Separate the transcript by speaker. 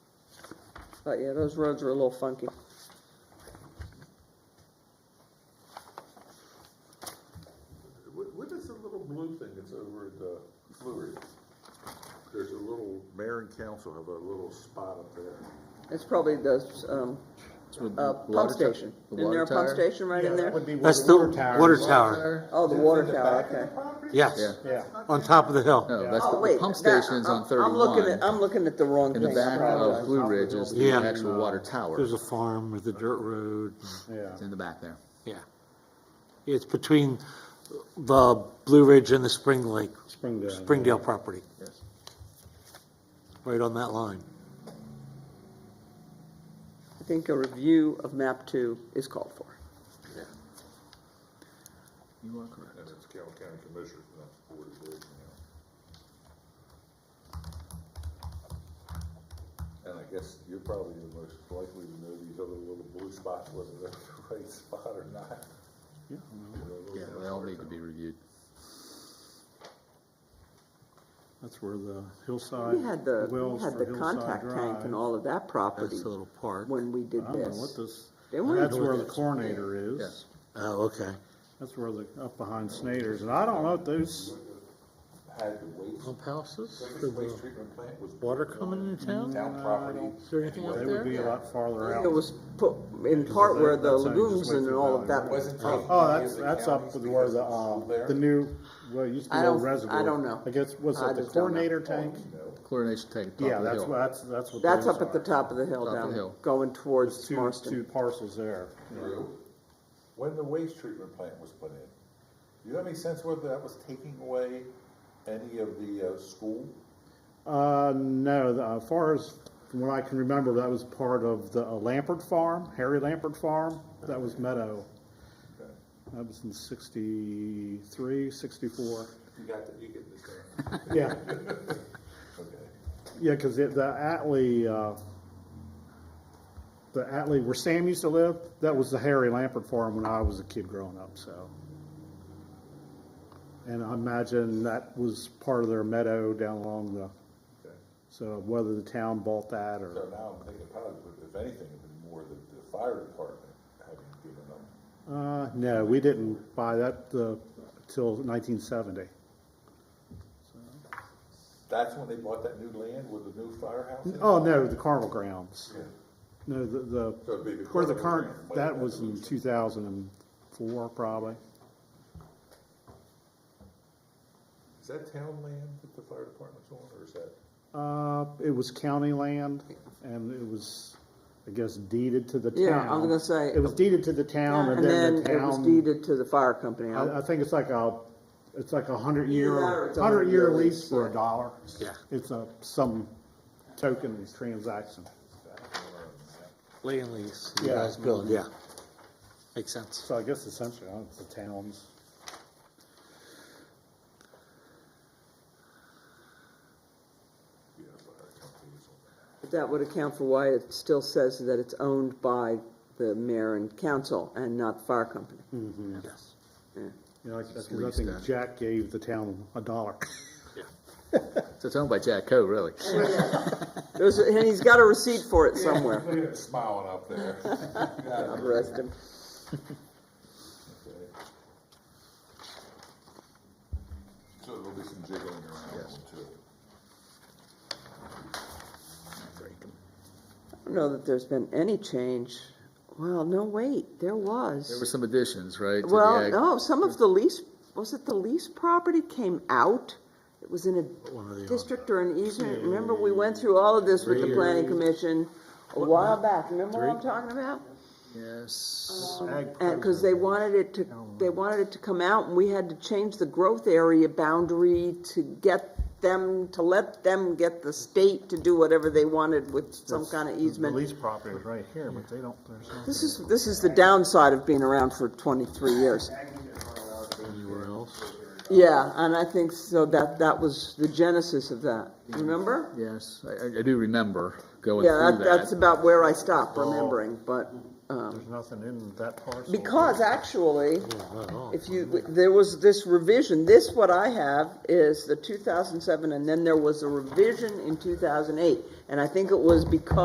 Speaker 1: But yeah, those roads are a little funky.
Speaker 2: What, what is the little blue thing that's over at the Fleury? There's a little, mayor and council have a little spot up there.
Speaker 1: It's probably the, um, uh, pump station. Isn't there a pump station right in there?
Speaker 3: That's the water tower.
Speaker 1: Oh, the water tower, okay.
Speaker 3: Yes,
Speaker 4: Yeah,
Speaker 3: on top of the hill.
Speaker 5: No, that's,
Speaker 1: Oh,
Speaker 5: the- the
Speaker 1: wait,
Speaker 5: pump
Speaker 1: that-
Speaker 5: station's on
Speaker 1: I'm- I'm looking at,
Speaker 5: thirty-one.
Speaker 1: I'm looking at the wrong
Speaker 5: In
Speaker 1: thing.
Speaker 5: the back of
Speaker 1: Apologize.
Speaker 5: Blue Ridge is the
Speaker 3: Yeah.
Speaker 5: actual water tower.
Speaker 3: There's a farm with a dirt road.
Speaker 4: yeah.
Speaker 5: It's in the back there.
Speaker 3: Yeah. It's between the Blue Ridge and the Spring Lake,
Speaker 4: Springdale.
Speaker 3: Springdale property,
Speaker 5: Yes.
Speaker 3: right on that line.
Speaker 1: I think a review of map two is called for.
Speaker 5: You are correct.
Speaker 2: And it's Carroll County Commissioners, not the Board of Directors now. And I guess you're probably the most likely to know these other little blue spots, whether they're the right spot or not.
Speaker 5: Yeah, they all need to be reviewed.
Speaker 4: That's where the hillside,
Speaker 1: We had the,
Speaker 4: the
Speaker 1: we
Speaker 4: wells
Speaker 1: had
Speaker 4: for
Speaker 1: the
Speaker 4: Hillside
Speaker 1: contact tank
Speaker 4: Drive.
Speaker 1: and all of that property
Speaker 3: That's a little park.
Speaker 1: when we did
Speaker 4: I don't know
Speaker 1: this.
Speaker 4: what this,
Speaker 1: They weren't
Speaker 4: that's
Speaker 1: doing
Speaker 4: where the
Speaker 1: this.
Speaker 4: coronator
Speaker 5: Yes.
Speaker 4: is.
Speaker 3: Oh, okay.
Speaker 4: That's where the, up behind Snyder's. And I don't know if those,
Speaker 2: Had the waste,
Speaker 4: Oh,
Speaker 3: Pump houses for
Speaker 2: biggest waste
Speaker 3: the
Speaker 2: treatment plant was.
Speaker 3: water coming into town?
Speaker 2: Town property.
Speaker 3: Is there anything out
Speaker 4: they would
Speaker 3: there?
Speaker 4: be a lot farther
Speaker 1: It
Speaker 4: out.
Speaker 1: was put in part where the
Speaker 4: That's how you
Speaker 1: lagoons
Speaker 4: just wait
Speaker 1: and
Speaker 4: for
Speaker 1: all of
Speaker 4: the
Speaker 1: that.
Speaker 4: value.
Speaker 1: was.
Speaker 4: Oh, that's, that's up with where the, um, the new, well, it used to be
Speaker 1: I
Speaker 4: an old
Speaker 1: don't-
Speaker 4: reservoir.
Speaker 1: I don't know.
Speaker 4: I guess, was
Speaker 1: I
Speaker 4: it the
Speaker 1: just don't know. Oh.
Speaker 4: coronator tank?
Speaker 5: Chlorination tank at the top
Speaker 4: Yeah,
Speaker 5: of the
Speaker 4: that's, what-
Speaker 5: hill.
Speaker 4: that's, that's what
Speaker 1: That's
Speaker 4: those
Speaker 1: up at
Speaker 4: are.
Speaker 1: the top of the hill
Speaker 5: Top of the
Speaker 1: down,
Speaker 5: hill.
Speaker 1: going
Speaker 4: There's
Speaker 1: towards
Speaker 4: two,
Speaker 1: Marston.
Speaker 4: two parcels there.
Speaker 2: Drew, when the waste treatment plant was put in, do you have any sense whether that was taking away any of the, uh, school?
Speaker 4: Uh, no, the- as far as, from what I can remember, that was part of the uh, Lampert Farm, Harry Lampert Farm, that was Meadow. That was in sixty-three, sixty-four,
Speaker 2: You got, the- you get this down.
Speaker 4: yeah,
Speaker 2: Okay.
Speaker 4: yeah, cause it, the Atlee, uh, the Atlee, where Sam used to live, that was the Harry Lampert Farm when I was a kid growing up, so. And I imagine that was part of their meadow down along the,
Speaker 2: Okay.
Speaker 4: so whether the town bought that or.
Speaker 2: So now I'm thinking probably, if anything, it'd be more the, the fire department having given them.
Speaker 4: Uh, no, we didn't buy that, uh, till nineteen seventy.
Speaker 2: That's when they bought that new land with the new firehouse? in it?
Speaker 4: Oh, no, the carnival grounds.
Speaker 2: Yeah.
Speaker 4: No, the,
Speaker 2: So it'd be
Speaker 4: the,
Speaker 2: the
Speaker 4: where
Speaker 2: carnival
Speaker 4: the
Speaker 2: grounds,
Speaker 4: current,
Speaker 2: but
Speaker 4: that
Speaker 2: it
Speaker 4: was in
Speaker 2: was-
Speaker 4: two thousand and four probably.
Speaker 2: Is that town land that the fire department's on, or is that?
Speaker 4: Uh, it was county land and it was, I guess deeded to the town.
Speaker 1: Yeah, I'm gonna say-
Speaker 4: It was deeded to the town
Speaker 1: And
Speaker 4: and then the
Speaker 1: then
Speaker 4: town.
Speaker 1: it was deeded to the fire company.
Speaker 4: I, I think it's like a, it's like a hundred
Speaker 1: Either
Speaker 4: year,
Speaker 1: it's a
Speaker 4: hundred year
Speaker 1: hundred-year
Speaker 4: lease
Speaker 1: lease,
Speaker 4: for a
Speaker 1: yeah.
Speaker 4: dollar.
Speaker 3: Yeah.
Speaker 4: It's a, some token transaction.
Speaker 3: Land lease,
Speaker 4: Yeah.
Speaker 3: yeah, built, yeah. Makes sense.
Speaker 4: So I guess essentially, uh, it's the towns.
Speaker 2: Yeah, fire company is on
Speaker 1: But That would account for why it still says that it's owned by the mayor and council and not the fire company.
Speaker 3: Yes.
Speaker 4: You know, like, that's 'cause I
Speaker 5: leased
Speaker 4: think
Speaker 5: then.
Speaker 4: Jack gave the town a dollar.
Speaker 5: So it's owned by Jack Co, really.
Speaker 1: There's, a- and he's got a receipt for it somewhere.
Speaker 2: that. Look at him smiling up there.
Speaker 1: God rest him.
Speaker 2: Okay. So there'll be some jiggling around
Speaker 5: Yes.
Speaker 2: too.
Speaker 1: I don't know that there's been any change. Well, no, wait, there
Speaker 5: There were
Speaker 1: was.
Speaker 5: some additions, right? to the
Speaker 1: Well,
Speaker 5: ag-
Speaker 1: no, some of the lease, was it the lease property came out? It was in
Speaker 3: One or the
Speaker 1: a
Speaker 3: other.
Speaker 1: district or an easement. Remember, we went through all of this with the planning commission a while back. Remember what I'm talking about?
Speaker 5: Yes.
Speaker 1: And, cause they wanted it to, they wanted it to come out, and we had to change the growth area boundary to get them, to let them get the state to do whatever they wanted with some kind of easement.
Speaker 4: lease property is right here, but they don't, there's no.
Speaker 1: This is, this is the downside of being around for twenty-three years.
Speaker 3: Anywhere else?
Speaker 1: Yeah, and I think so that, that was the genesis of that, remember?
Speaker 5: Yes, I, I- I do remember going
Speaker 1: Yeah, that,
Speaker 5: through
Speaker 1: that's
Speaker 5: that.
Speaker 1: about where I stopped remembering, but, um,
Speaker 4: There's nothing in that parcel.
Speaker 1: because actually,
Speaker 3: Not at all.
Speaker 1: If you, there was this revision, this, what I have is the two thousand seven, and then there was a revision in two thousand eight. And I think it was because